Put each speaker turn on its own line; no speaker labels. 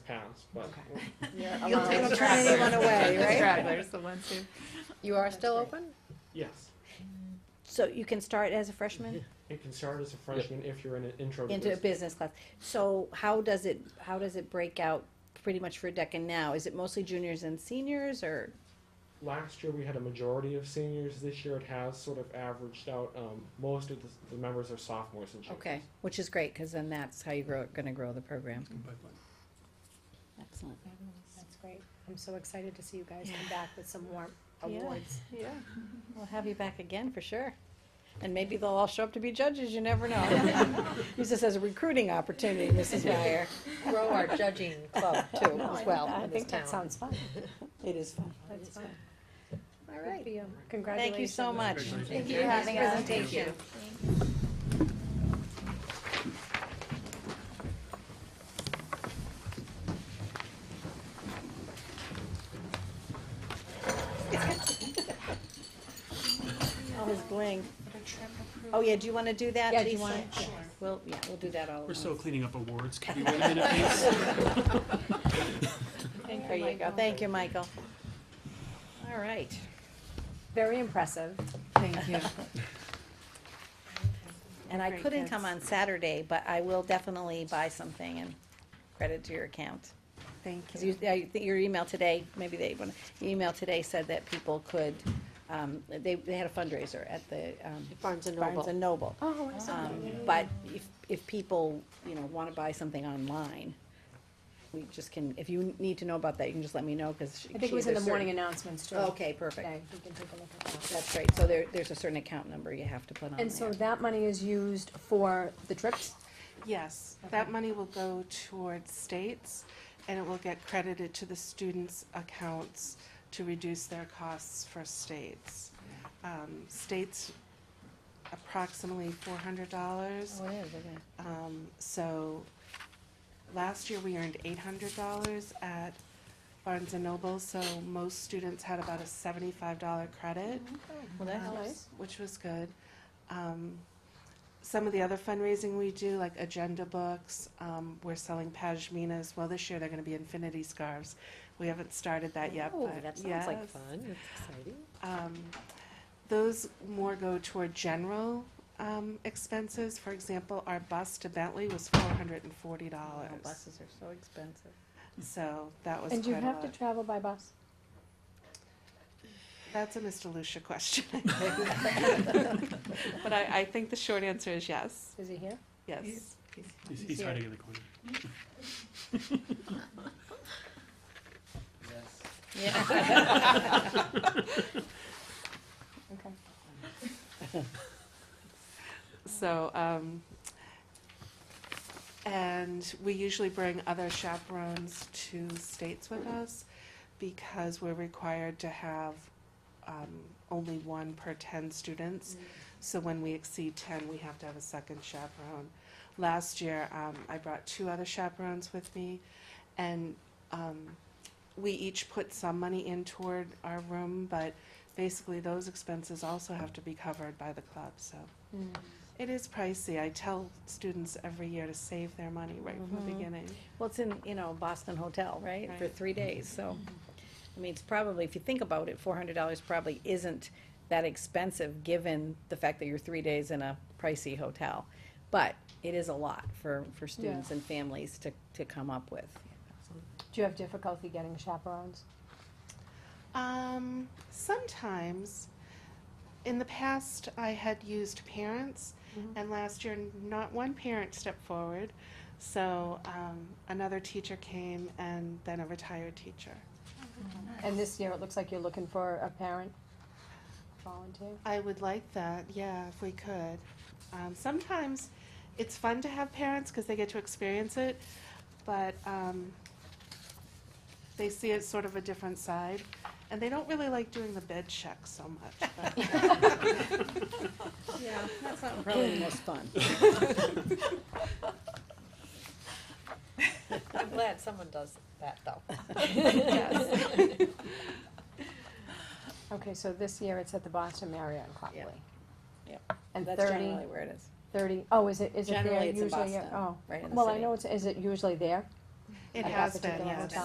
else, but.
Okay.
You're
You'll
allowed
take
to
the
turn
stragglers.
anyone away,
The
right?
stragglers, the ones who.
You are still
That's
open?
Yes,
So you can start as a freshman
it can start as a freshman if you're in an intro to
into a
business.
business class. So how does it, how does it break out pretty much for Deccan now? Is it mostly juniors and seniors or?
Last year we had a majority of seniors, this year it has sort of averaged out, um, most of the, the members are sophomores and juniors.
Okay, which is great, cause then that's how you grow, gonna grow the program. Excellent.
That's great. I'm so excited to see you guys come back with some more awards.
Yeah.
We'll have you back again for sure. And maybe they'll all show up to be judges, you never know. Use this as a recruiting opportunity, Mrs. Meyer.
Grow our judging club too,
No, Oh, I-
as well,
I
in this
think that
town.
sounds fun.
It is fun.
That's fun.
All
Good for
right.
you. Congratulations.
Thank you so much.
Thank you for having us.
Presentation.
All his bling. Oh, yeah, do you wanna do that,
Yeah, do you
Lisa?
want- Sure.
We'll, yeah, we'll do that all at
We're
once.
still cleaning up awards. Can we wait a minute, please?
There you go. Thank you, Michael. All right.
Very impressive.
Thank you.
And I
Great
couldn't come
kids.
on Saturday, but I will definitely buy something and credit to your account.
Thank
Because
you.
you, I think your email today, maybe they, wanna- your email today said that people could, um, they, they had a fundraiser at the, um,
Barnes and
Barnes
Noble.
and Noble.
Oh, I saw
Um, but if, if people, you know, wanna buy something online, we just can, if you need to know about that, you can just let me know, cause she.
I think
she-
it was in the
there's
morning
certain- Oh,
announcements too.
Okay, perfect.
Today. We can take a look at that.
That's right. So there, there's a certain account number you have to put on
And so
there.
that money is used for the trips?
Yes, that money will go towards states, and it will get credited to the students' accounts to reduce their costs for states. Um, States approximately four hundred dollars,
Oh, it is, okay.
um, so last year we earned eight hundred dollars at Barnes and Noble, so most students had about a seventy-five dollar credit
Well, that
um,
helps.
s- Which was good. Um, some of the other fundraising we do, like agenda books, um, we're selling pashminas. Well, this year they're going to be infinity scarves. We haven't started that yet,
Oh,
but
that sounds like
yes.
fun. That's exciting.
Um, those more go toward general um, expenses. For example, our bus to Bentley was four hundred and forty
Oh,
dollars.
Buses are so expensive.
So that was
And you
quite a
have to
lot.
travel by bus?
That's a Mr. Lucia question. but I, I think the short answer is yes.
Is he here?
Yes.
He's- He's hiding in the corner.
Okay.
So, um, and we usually bring other chaperones to states with us because we're required to have, um, only one per ten students.
Mm.
So when we exceed ten, we have to have a second chaperone. Last year, um, I brought two other chaperones with me and, um, we each put some money in toward our room, but basically those expenses also have to be covered by the club, so.
Mm.
It is pricey. I tell students every year to save their money right from the beginning.
Well, it's in, you know, Boston Hotel, right, for
Right.
three days, so,
Mm-hmm.
I mean, it's probably, if you think about it, four hundred dollars probably isn't that expensive, given the fact that you're three days in a pricey hotel. But it is a lot for, for students and families to, to come up with.
Do you have difficulty getting chaperones?
Um, sometimes, in the past, I had used parents, and last year, not one parent stepped forward. So um, another teacher came, and then a retired teacher.
And this year, it looks like you're looking for a parent volunteer?
I would like that, yeah, if we could. Um, sometimes it's fun to have parents because they get to experience it, but um, they see it sort of a different side, and they don't really like doing the bed check so much. but-
Yeah, that's not probably the most fun.
I'm glad someone does that though.
Okay, so this year it's at the Boston Marriott in Copley.
Yep.
And
That's
thirty,
generally where it is.
thirty, oh, is it, is it there
Generally,
usually?
it's in Boston,
Oh,
right in the
well, I
city.
know it's, is it usually there?
It
at that
has been,
particular
yes.
hotel.